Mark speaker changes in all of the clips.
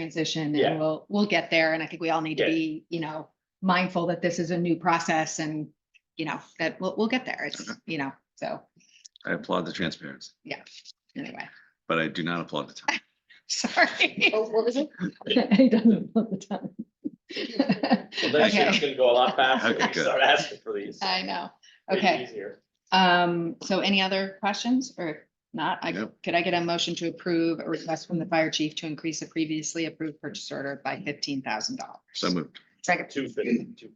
Speaker 1: transition
Speaker 2: Yeah.
Speaker 1: and we'll, we'll get there. And I think we all need to
Speaker 2: Yeah.
Speaker 1: be, you know, mindful that this is a new process and, you know, that we'll, we'll get there. It's, you know, so
Speaker 3: I applaud the transparency,
Speaker 1: anyway,
Speaker 3: but I do not applaud the time.
Speaker 1: sorry.
Speaker 4: Oh, what was it?
Speaker 1: He doesn't love the time.
Speaker 2: Well, next year it's
Speaker 1: Okay.
Speaker 2: gonna go a lot faster.
Speaker 3: Okay,
Speaker 2: We
Speaker 3: good.
Speaker 2: start asking for these.
Speaker 1: I know.
Speaker 2: Make it
Speaker 1: Okay.
Speaker 2: easier.
Speaker 1: Um, so any other questions or not? I,
Speaker 3: Yep.
Speaker 1: could I get a motion to approve a request from the fire chief to increase a previously approved purchase order by fifteen thousand dollars?
Speaker 3: So moved.
Speaker 1: Second.
Speaker 2: Two fifty, two.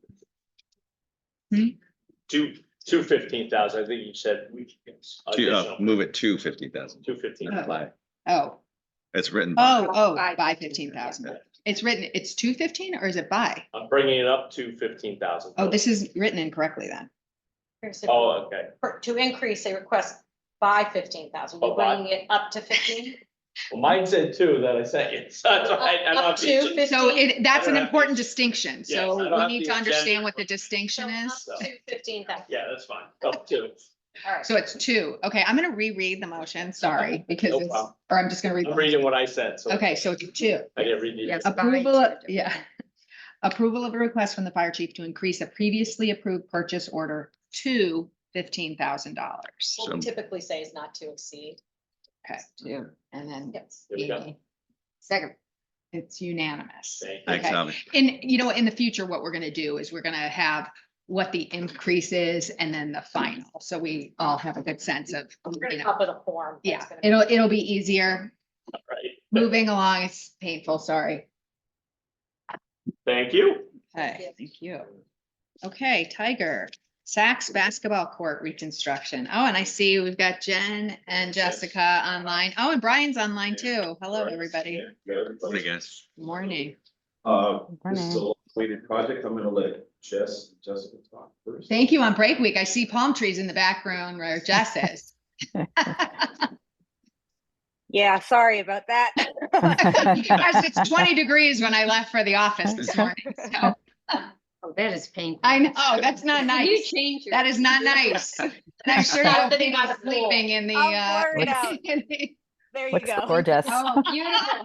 Speaker 1: Hmm?
Speaker 2: Two, two fifteen thousand, I think you said we.
Speaker 3: Two- uh, Move it to fifty thousand.
Speaker 2: Two fifteen.
Speaker 1: Oh. Oh,
Speaker 3: It's written. by-
Speaker 1: oh, oh,
Speaker 4: By
Speaker 1: by
Speaker 4: 15,000.
Speaker 1: fifteen thousand. It's written, it's two fifteen or is it by?
Speaker 2: I'm bringing it up to fifteen thousand.
Speaker 1: Oh, this is written incorrectly then.
Speaker 4: Here's
Speaker 2: Oh,
Speaker 4: the-
Speaker 2: okay.
Speaker 4: for- To increase a request by fifteen thousand,
Speaker 2: Oh,
Speaker 4: we're
Speaker 2: by-
Speaker 4: bringing it up to fifteen.
Speaker 2: Well, mine said two that I sent you. So that's why I- I'm
Speaker 4: Up
Speaker 2: not
Speaker 4: to
Speaker 2: being-
Speaker 4: 15.
Speaker 1: So it, that's an
Speaker 2: don't have
Speaker 1: important
Speaker 2: the-
Speaker 1: distinction,
Speaker 2: Yes, I
Speaker 1: so
Speaker 2: don't
Speaker 1: we
Speaker 2: have
Speaker 1: need
Speaker 2: the
Speaker 1: to understand
Speaker 2: agenda.
Speaker 1: what the distinction is.
Speaker 4: So up To fifteen thousand,
Speaker 2: Yeah, that's fine. Up to.
Speaker 4: all right.
Speaker 1: So it's two, okay, I'm gonna reread the motion, sorry, because
Speaker 2: No
Speaker 1: it's,
Speaker 2: problem.
Speaker 1: or I'm just gonna read.
Speaker 2: Oh, I'm
Speaker 1: the-
Speaker 2: reading what I said, so.
Speaker 1: Okay, so it's two.
Speaker 2: I didn't read it.
Speaker 5: Yes. by
Speaker 1: Approval, of-
Speaker 5: two
Speaker 1: yeah. Approval of a request from the fire chief to increase a previously approved purchase order to fifteen thousand dollars.
Speaker 4: What we typically say is not to exceed.
Speaker 1: Okay, two, and then
Speaker 4: Yes.
Speaker 2: There we go.
Speaker 1: Amy. Second. It's unanimous.
Speaker 2: Thank you.
Speaker 3: Thanks,
Speaker 1: Okay.
Speaker 3: Tommy.
Speaker 1: And you know, in the future, what we're gonna do is we're gonna have what the increase is and then the final. So we all have a good sense of,
Speaker 4: We're
Speaker 1: you
Speaker 4: gonna
Speaker 1: know,
Speaker 4: up it a form. that's
Speaker 1: yeah,
Speaker 4: gonna be-
Speaker 1: it'll, it'll be easier.
Speaker 2: All right.
Speaker 1: Moving along, it's painful, sorry.
Speaker 2: Thank you.
Speaker 1: Okay, thank you. Okay, Tiger, Saks Basketball Court Reconstruction. Oh, and I see we've got Jen and Jessica online. Oh, and Brian's online too. Hello, everybody.
Speaker 3: Morning, guys.
Speaker 1: Morning.
Speaker 6: Uh, this is a long-awaited project. I'm gonna let Jess, Jessica talk first.
Speaker 1: Thank you on break week. I see palm trees in the background where Jess is.
Speaker 7: Yeah, sorry about that.
Speaker 1: Guys, It's twenty degrees when I left for the office this morning, so
Speaker 5: Oh, that is painful.
Speaker 1: I know, that's not nice.
Speaker 4: change your-
Speaker 1: That is not nice. And I'm sure you
Speaker 4: Stop
Speaker 1: don't
Speaker 4: sitting
Speaker 1: think I'm
Speaker 4: by the pool.
Speaker 1: sleeping in the,
Speaker 7: I'll
Speaker 1: uh.
Speaker 7: blur it out.
Speaker 1: in the-
Speaker 7: There you
Speaker 8: Looks
Speaker 7: go.
Speaker 8: gorgeous.
Speaker 1: Oh, beautiful.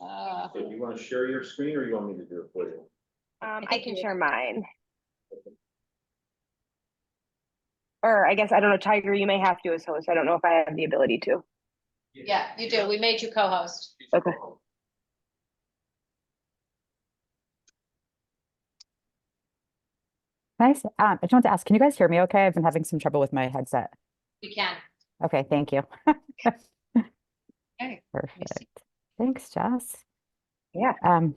Speaker 1: Uh,
Speaker 6: So you wanna share your screen or you want me to do it for you?
Speaker 7: Um,
Speaker 4: I
Speaker 7: I
Speaker 4: can
Speaker 7: can
Speaker 4: do it.
Speaker 7: share mine. Or I guess, I don't know, Tiger, you may have to as host. I don't know if I have the ability to.
Speaker 4: Yeah, you do. We made you co-host.
Speaker 7: Okay.
Speaker 8: Nice. Um, I just want to ask, can you guys hear me okay? I've been having some trouble with my headset.
Speaker 4: You can.
Speaker 8: Okay, thank you.
Speaker 1: Okay, me see.
Speaker 8: Perfect. Thanks, Jess.
Speaker 7: Yeah.
Speaker 8: Um,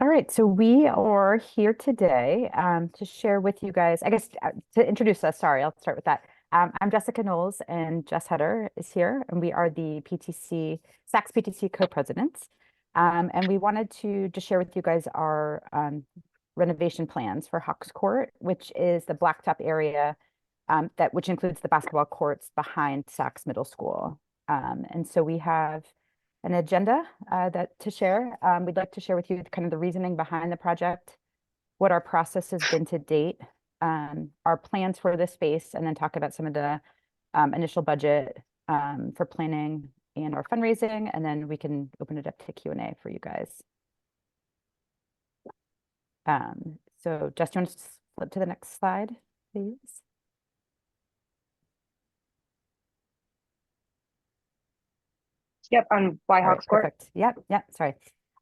Speaker 8: all right, so we are here today um, to share with you guys, I guess, uh, to introduce us, sorry, I'll start with that. Um, I'm Jessica Knowles and Jess Hutter is here, and we are the PTC, Saks PTC co-presidents. Um, and we wanted to just share with you guys our um, renovation plans for Hawks Court, which is the blacktop area um, that, which includes the basketball courts behind Saks Middle School. Um, and so we have an agenda uh, that to share. Um, we'd like to share with you kind of the reasoning behind the project, what our process has been to date, um, our plans for the space, and then talk about some of the um, initial budget um, for planning and our fundraising, and then we can open it up to Q and A for you guys. Um, so, Jess, do you want to s- flip to the next slide, please?
Speaker 7: Yep, on White
Speaker 8: All right,
Speaker 7: Hawks Court.
Speaker 8: Perfect. Yep, yep, sorry.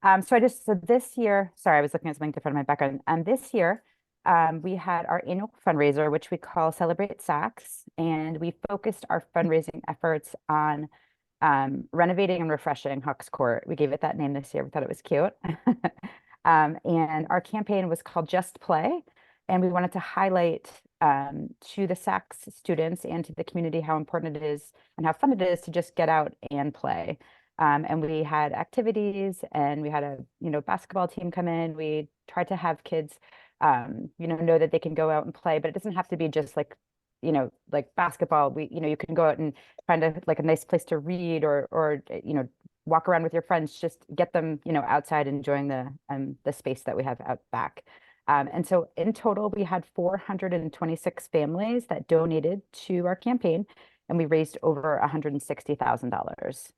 Speaker 8: Um, so I just, so this year, sorry, I was looking at something different in my background. And this year, um, we had our annual fundraiser, which we call Celebrate Saks. And we focused our fundraising efforts on um, renovating and refreshing Hawks Court. We gave it that name this year. We thought it was cute. Um, and our campaign was called Just Play. And we wanted to highlight um, to the Saks students and to the community how important it is and how fun it is to just get out and play um, and we had activities and we had a you know basketball team come in we tried to have kids um, you know know that they can go out and play but it doesn't have to be just like you know like basketball we you know you can go out and find a like a nice place to read or or uh, you know walk around with your friends just get them you know outside enjoying the um the space that we have out back um, and so in total we had 426 families that donated to our campaign and we raised over $160,000